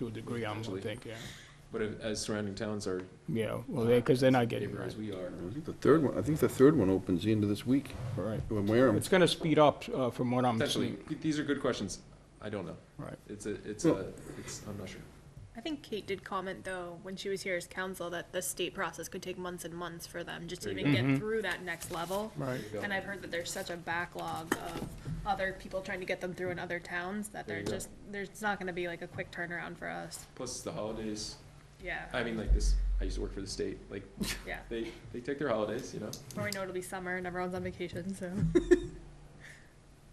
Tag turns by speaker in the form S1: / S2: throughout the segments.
S1: to a degree, I'm gonna
S2: Potentially.
S1: think, yeah.
S2: But if- as surrounding towns are
S1: Yeah, well, they, because they're not getting it
S2: neighbor
S1: right.
S2: as we are,
S3: I think the third one, I think the third one opens the end of this week,
S1: All right.
S3: when Wareham,
S1: It's gonna speed up, uh, from what I'm
S2: potentially,
S1: seeing.
S2: these are good questions. I don't know.
S1: Right.
S2: It's a, it's
S3: Well-
S2: a, it's, I'm not sure.
S4: I think Kate did comment though, when she was here as counsel, that the state process could take months and months for them just to
S2: There you
S4: even
S1: go. Mhm.
S4: get through that next level.
S1: Right.
S2: Yeah.
S4: And I've heard that there's such a backlog of other people trying to get them through in other towns that
S2: There
S4: they're
S2: you go.
S4: just, there's not gonna be like a quick turnaround for us.
S2: Plus it's the holidays.
S4: Yeah,
S2: I mean, like this, I used to work for the state, like,
S4: yeah.
S2: they, they take their holidays, you know?
S4: Before we know it, it'll be summer and everyone's on vacation, so.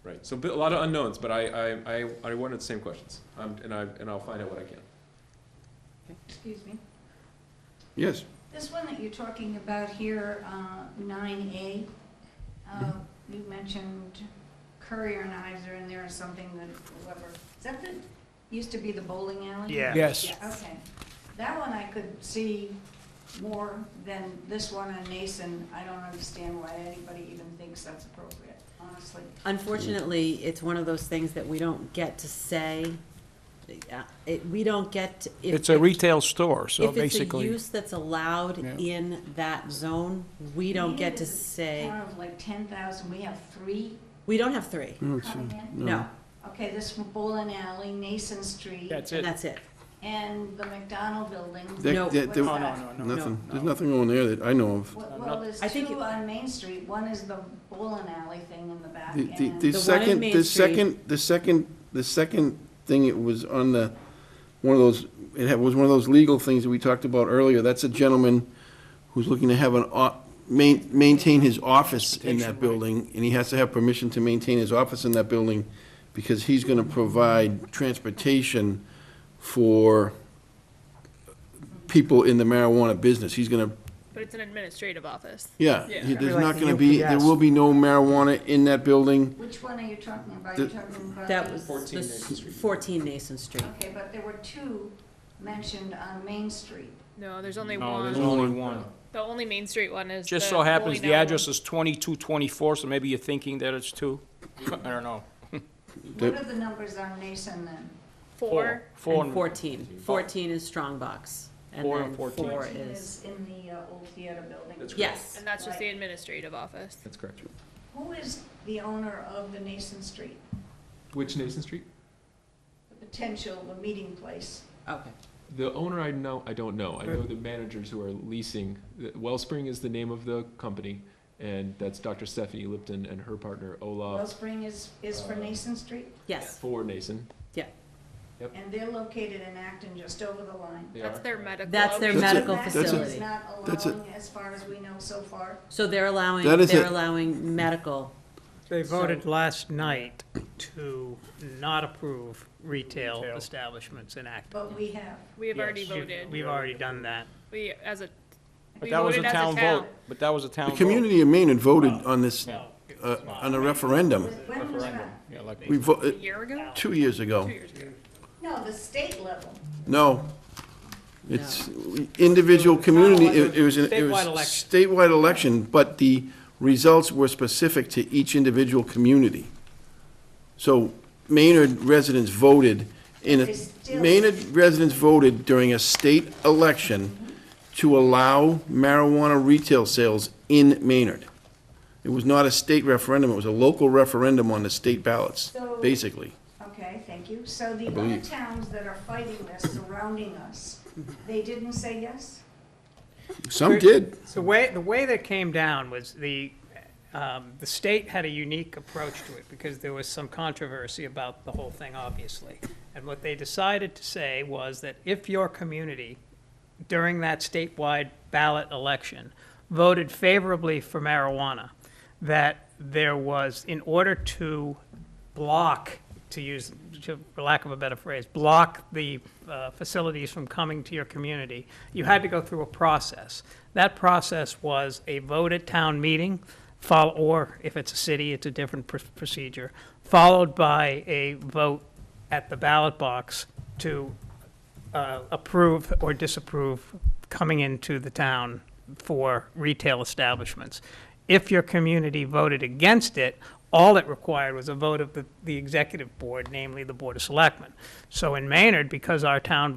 S2: Right, so bi- a lot of unknowns, but I, I, I, I wanted the same questions, um, and I, and I'll find out what I can.
S5: Excuse me.
S3: yes,
S5: This one that you're talking about here, uh, nine A, uh, you mentioned courier knives are in there or something that whoever, is that the, used to be the bowling alley?
S6: Yeah.
S1: Yes,
S5: Yeah, okay. That one I could see more than this one on Nason. I don't understand why anybody even thinks that's appropriate, honestly.
S7: Unfortunately, it's one of those things that we don't get to say. Uh, It, we don't get. to- if-
S1: it's a retail store, so
S7: If it's a
S1: basically,
S7: use that's allowed
S1: Yeah.
S7: in that zone, we don't get to
S5: Maybe there's a
S7: say,
S5: Town of like ten thousand, we have three
S7: we don't have three.
S5: coming
S1: Mm-hmm.
S5: in.
S7: No,
S5: Okay, this bowling alley, Nason Street.
S1: that's it.
S7: that's it.
S5: And the McDonald building.
S3: That-
S7: No.
S3: that-
S5: What's
S3: that-
S1: No, no, no, no.
S3: nothing,
S1: No.
S3: there's nothing on there that I know of.
S5: Well, well, there's
S7: I think
S5: two
S7: it-
S5: on Main Street. One is the bowling alley thing in the back
S3: The, the- the
S5: and.
S7: The one in
S3: second,
S7: Main
S3: the
S7: Street.
S3: second, the second, the second thing, it was on the, one of those, it had- was one of those legal things that we talked about earlier, that's a gentleman who's looking to have an, o- main, maintain his office in that building, and he has to have permission to maintain his office in that building, because he's gonna provide transportation for people in the marijuana business, he's gonna
S4: But it's an administrative office.
S3: yeah,
S4: Yeah.
S3: he- there's
S6: Like
S3: not
S6: the
S3: gonna be, there
S6: UPS.
S3: will be no marijuana in that building.
S5: Which one are you talking about?
S3: The-
S5: You're talking about.
S7: That
S5: the-
S7: was.
S2: 14
S7: the
S2: Nason
S7: s-
S2: Street.
S7: Fourteen Nason Street.
S5: Okay, but there were two mentioned on Main Street.
S4: No, there's only
S1: No, there's
S4: one.
S1: only one.
S4: The only Main Street one is.
S1: Just
S4: the
S1: so happens
S4: bowling
S1: the
S4: alley
S1: address is twenty-two twenty-four, so maybe you're thinking that it's two. I don't know.
S3: That-
S5: What are the numbers on Nason then?
S4: Four.
S1: Four.
S7: And
S1: and-
S7: fourteen. Fourteen is Strongbox.
S1: Four and
S7: then
S1: 14.
S7: Four
S5: Fourteen
S7: is,
S5: is in the uh, old theater building.
S2: That's correct.
S7: yes.
S4: And that's just the administrative office.
S2: That's correct.
S5: Who is the owner of the Nason Street,
S2: Which Nason Street?
S5: the potential, the meeting place?
S7: Okay.
S2: The owner I know, I don't know. I know the managers who are leasing. The- Wellspring is the name of the company, and that's Dr. Stephanie Lipton and her partner Olaf
S5: Wellspring is, is for Nason Street?
S7: Yes,
S2: for Nason.
S5: And they're located in Acton, just over the line.
S2: They
S4: That's
S2: are.
S4: their medical.
S7: That's their
S4: office.
S3: That's a-
S7: medical
S5: Acton
S3: that's a-
S7: facility.
S5: is not
S3: that's a-
S5: allowing, as far as we know so far.
S7: So they're allowing,
S3: That is
S7: they're
S3: it.
S7: allowing medical.
S6: They
S7: So-
S6: voted last night to not approve retail
S1: Retail.
S6: establishments in Acton.
S5: But we have.
S4: We have already
S6: Yes, you-
S4: voted.
S6: We've already done that.
S4: We, as a,
S1: But
S4: we
S1: that was a
S4: voted as
S1: town vote. But that was a town
S3: The
S1: vote.
S3: community of Maine had voted on this, uh, on a referendum.
S5: When was that?
S1: Yeah, like,
S3: We vo- uh,
S4: A year ago?
S3: two years ago.
S4: Two years ago.
S5: No, the state level.
S3: No. It's individual community, it it was, an- it was
S6: Statewide election.
S3: statewide election, but the results were specific to each individual community. So Maynard residents voted in,
S5: They
S3: a
S5: still-
S3: Maynard residents voted during a state election to allow marijuana retail sales in Maynard. It was not a state referendum, it was a local referendum on the state ballots,
S5: So-
S3: basically.
S5: Okay, thank you. So the other
S3: believe.
S5: towns that are fighting this, surrounding us, they didn't say yes?
S3: Some did.
S6: The way, the way that came down was the, um, the state had a unique approach to it because there was some controversy about the whole thing, obviously. And what they decided to say was that if your community during that statewide ballot election voted favorably for marijuana, that there was, in order to block, to use, to, for lack of a better phrase, block the uh, facilities from coming to your community, you had to go through a process. That process was a vote at town meeting, follow, or if it's a city, it's a different pr- procedure, followed by a vote at the ballot box to uh, approve or disapprove coming into the town for retail establishments. If your community voted against it, all it required was a vote of the, the executive board, namely the Board of Selectmen. So in Maynard, because our town